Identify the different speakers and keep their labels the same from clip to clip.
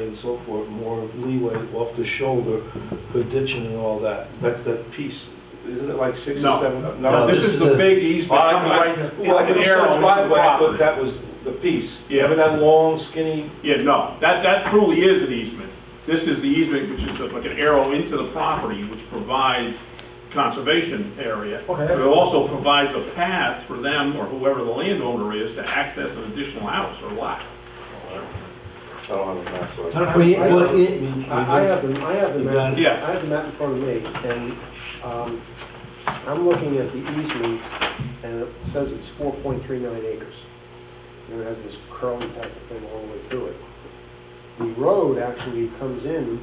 Speaker 1: and so forth, more leeway off the shoulder for ditching and all that. That's that piece, isn't it like six or
Speaker 2: No.
Speaker 1: seven?
Speaker 2: No, this is the big easement
Speaker 1: Well, I-
Speaker 2: coming right,
Speaker 1: I-
Speaker 2: it's
Speaker 1: Well, I
Speaker 2: an arrow.
Speaker 1: understand why, but I thought that was the piece.
Speaker 2: Yeah.
Speaker 1: Remember that long skinny,
Speaker 2: Yeah, no, that, that truly is an easement. This is the easement, which is like an arrow into the property, which provides conservation area.
Speaker 3: Okay.
Speaker 2: But It also provides a path for them, or whoever the landowner is, to access an additional house or lot.
Speaker 1: I don't have a map, so I.
Speaker 3: I-
Speaker 4: We, well, it,
Speaker 3: I I have the, I have the map,
Speaker 2: Yeah.
Speaker 3: I have the map in front of me, and, um, I'm looking at the easement, and it says it's four point three nine acres. And it has this curly type of thing all the way through it. The road actually comes in,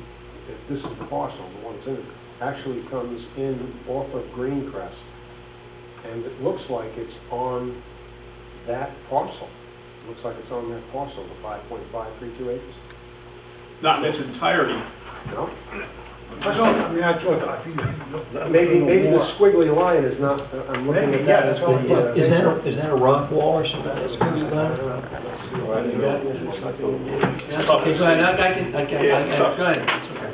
Speaker 3: if this is the parcel, the one that's in it, actually comes in off of Greencrest, and it looks like it's on that parcel. Looks like it's on that parcel, the five point five three two acres.
Speaker 2: Not in its entirety.
Speaker 3: No?
Speaker 4: I don't, I mean, I thought, I think.
Speaker 3: Maybe, maybe the squiggly line is not, uh, I'm looking at that as the...
Speaker 4: Maybe, yeah, that's what-
Speaker 3: uh,
Speaker 4: Is that, a- is that a rock wall or something? that's coming down? Okay, go ahead, I I can, I can, I can, go ahead. It's okay.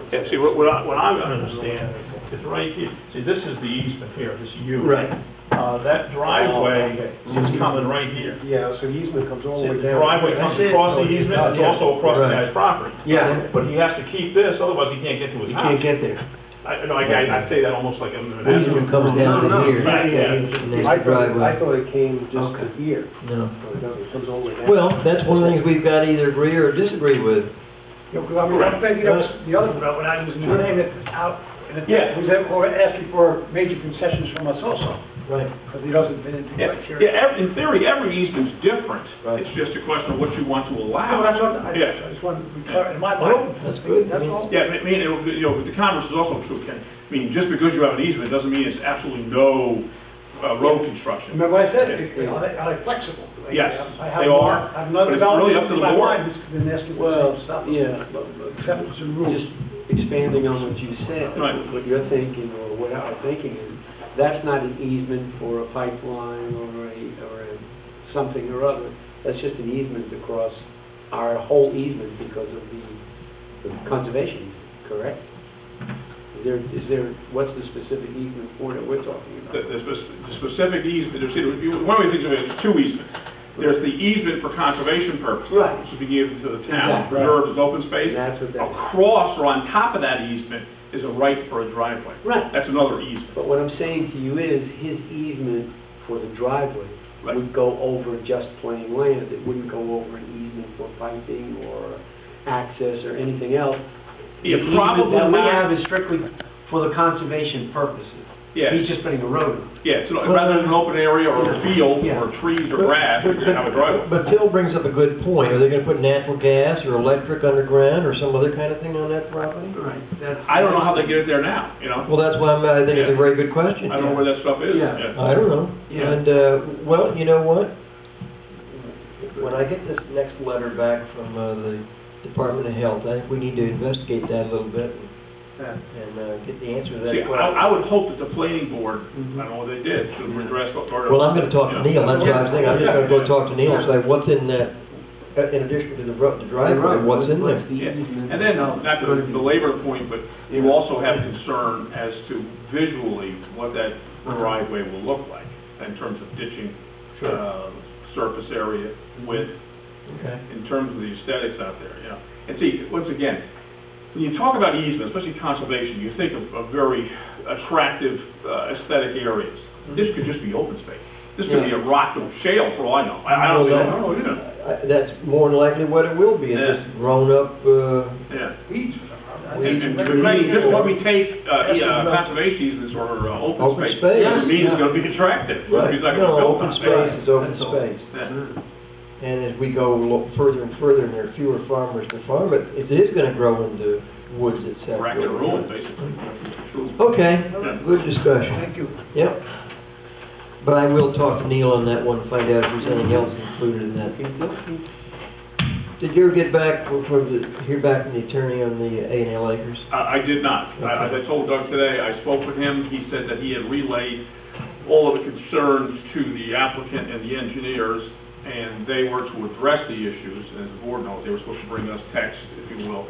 Speaker 2: Yeah, see, what, what I, what I understand is right here, see, this is the easement here, this is you.
Speaker 4: Right. Oh,
Speaker 2: Uh, that driveway is coming right here.
Speaker 3: Yeah, so the easement comes all the way
Speaker 2: The
Speaker 3: down.
Speaker 2: driveway comes across the easement, it's also across the
Speaker 4: Right.
Speaker 2: guy's property.
Speaker 4: Yeah.
Speaker 2: But he has to keep this, otherwise he can't get to his
Speaker 4: You
Speaker 2: house.
Speaker 4: can't get there.
Speaker 2: I, no, I, I say that almost like I'm.
Speaker 4: The easement comes down to
Speaker 3: No, no,
Speaker 4: here.
Speaker 2: yeah, yeah.
Speaker 4: And there's
Speaker 3: I
Speaker 4: the
Speaker 3: thought, I
Speaker 4: driveway.
Speaker 3: thought it came just to
Speaker 4: Okay.
Speaker 3: here,
Speaker 4: No.
Speaker 3: so it doesn't- it comes all the way down.
Speaker 4: Well, that's one of the things we've got to either agree or disagree with.
Speaker 5: Yeah, because I mean, I'm thinking of
Speaker 4: Uh,
Speaker 5: the other road, when I was doing it out, and it
Speaker 2: Yeah.
Speaker 5: was that- or asking for major concessions from us also,
Speaker 4: Right.
Speaker 5: because it doesn't fit into
Speaker 2: Yeah,
Speaker 5: criteria.
Speaker 2: yeah, ev- in theory, every easement's different.
Speaker 3: Right.
Speaker 2: It's just a question of what you want to
Speaker 5: No,
Speaker 2: allow.
Speaker 5: but I thought, I
Speaker 2: Yeah.
Speaker 5: I just want to be clear, in my
Speaker 4: Well,
Speaker 5: mind,
Speaker 4: Oh, that's good. I
Speaker 5: that's
Speaker 4: mean,
Speaker 5: all.
Speaker 2: Yeah, I mean, it- you know, the converse is also true, Ken. I mean, just because you have an easement doesn't mean it's absolutely no uh, road construction.
Speaker 5: Remember what I said,
Speaker 2: Yeah.
Speaker 5: They- are they, are they flexible? Like,
Speaker 2: Yes,
Speaker 5: I have
Speaker 2: they
Speaker 5: no-
Speaker 2: are,
Speaker 5: I have no
Speaker 2: but it's really
Speaker 5: development
Speaker 2: up to
Speaker 5: in
Speaker 2: the
Speaker 5: my
Speaker 2: board.
Speaker 5: mind that's been asking for
Speaker 4: Well,
Speaker 5: the same stuff.
Speaker 4: yeah.
Speaker 5: Except to rules.
Speaker 4: Just expanding on what you said,
Speaker 2: Right.
Speaker 4: what you're thinking or what I'm thinking is, that's not an easement for a pipeline or a, or a something or other. That's just an easement across our whole easement because of the the conservation, easement, correct? Is there, is there, what's the specific easement for that we're talking about?
Speaker 2: The, the spec- the specific easement, there's, you- one way to think of it is two easements. There's the easement for conservation purposes,
Speaker 4: Right.
Speaker 2: which is being given to the town,
Speaker 4: Exactly.
Speaker 2: preserved as open space.
Speaker 4: And that's what that,
Speaker 2: Across or on top of that easement is a right for a driveway.
Speaker 4: right.
Speaker 2: That's another easement.
Speaker 4: But what I'm saying to you is, his easement for the driveway
Speaker 2: Right.
Speaker 4: would go over just plain land. It wouldn't go over an easement for piping or access or anything else.
Speaker 2: Yeah,
Speaker 4: The easement
Speaker 2: probably
Speaker 4: That we
Speaker 2: not-
Speaker 4: have is strictly for the conservation purposes.
Speaker 2: Yeah.
Speaker 4: He's just putting a road on.
Speaker 2: Yeah, so rather than an open area or a field or trees or grass, you're gonna have a driveway.
Speaker 6: But Phil brings up a good point. Are they gonna put natural gas or electric underground or some other kind of thing on that property?
Speaker 4: Right, that's.
Speaker 2: I don't know how they get it there now, you know?
Speaker 6: Well, that's why I'm, I think it's a very good question.
Speaker 2: I don't know where that stuff is.
Speaker 4: Yeah.
Speaker 6: I don't know.
Speaker 4: Yeah.
Speaker 6: And, uh, well, you know what? When I get this next letter back from, uh, the Department of Health, I think we need to investigate that a little bit and, and, uh, get the answer to that
Speaker 2: See,
Speaker 6: question.
Speaker 2: I, I would hope that the planning board,
Speaker 4: Mm-hmm.
Speaker 2: I don't know what they did, should have addressed what sort of.
Speaker 6: Well, I'm gonna talk to
Speaker 2: you know,
Speaker 6: Neil, that's what I was thinking. I'm just gonna go talk to Neil and say, what's in that, uh, in addition to the ro- the driveway, what's in there?
Speaker 4: the
Speaker 2: Yeah.
Speaker 4: easement?
Speaker 2: And then, uh, not to belabor the point, but you also have concern as to visually what that driveway will look like in terms of ditching, uh, surface area, width,
Speaker 6: Okay.
Speaker 2: in terms of the aesthetics out there, you know. And see, once again, when you talk about easement, especially conservation, you think of, of very attractive uh, aesthetic areas. This could just be open space. This could be a rock or shale for all I know. I I don't
Speaker 6: Well,
Speaker 2: know,
Speaker 6: that-
Speaker 2: I don't know,
Speaker 6: I- That's more than likely what it will be, it's
Speaker 2: Yeah.
Speaker 6: just grown-up, uh,
Speaker 2: yeah.
Speaker 5: Weeds or something. I
Speaker 2: And,
Speaker 5: think-
Speaker 2: and
Speaker 6: Weeds
Speaker 2: the main- just when we take, uh,
Speaker 5: Yes,
Speaker 2: yeah,
Speaker 5: no.
Speaker 2: conservation easements or uh, open
Speaker 6: Open
Speaker 2: space,
Speaker 6: space,
Speaker 2: it means it's
Speaker 6: yeah.
Speaker 2: gonna be attractive. It's gonna be
Speaker 6: Right,
Speaker 2: like a
Speaker 6: no,
Speaker 2: built
Speaker 6: open
Speaker 2: on
Speaker 6: space
Speaker 2: area.
Speaker 6: is open
Speaker 5: That's all.
Speaker 6: space.
Speaker 2: Yeah.
Speaker 6: And as we go lo- further and further, and there are fewer farmers to farm it, it is gonna grow into woods, et cetera.
Speaker 2: Rack and ruin, basically. True.
Speaker 6: Okay,
Speaker 2: Yeah.
Speaker 6: good discussion,
Speaker 5: Thank you.
Speaker 6: yep. But I will talk to Neil on that one, find out if there's anything else included in that. Did you ever get back, from from the, hear back from the attorney on the A and L acres?
Speaker 2: I, I did not. I- As I told Doug today, I spoke with him, he said that he had relayed all of the concerns to the applicant and the engineers, and they were to address the issues, and as the board knows, they were supposed to bring us text, if you will,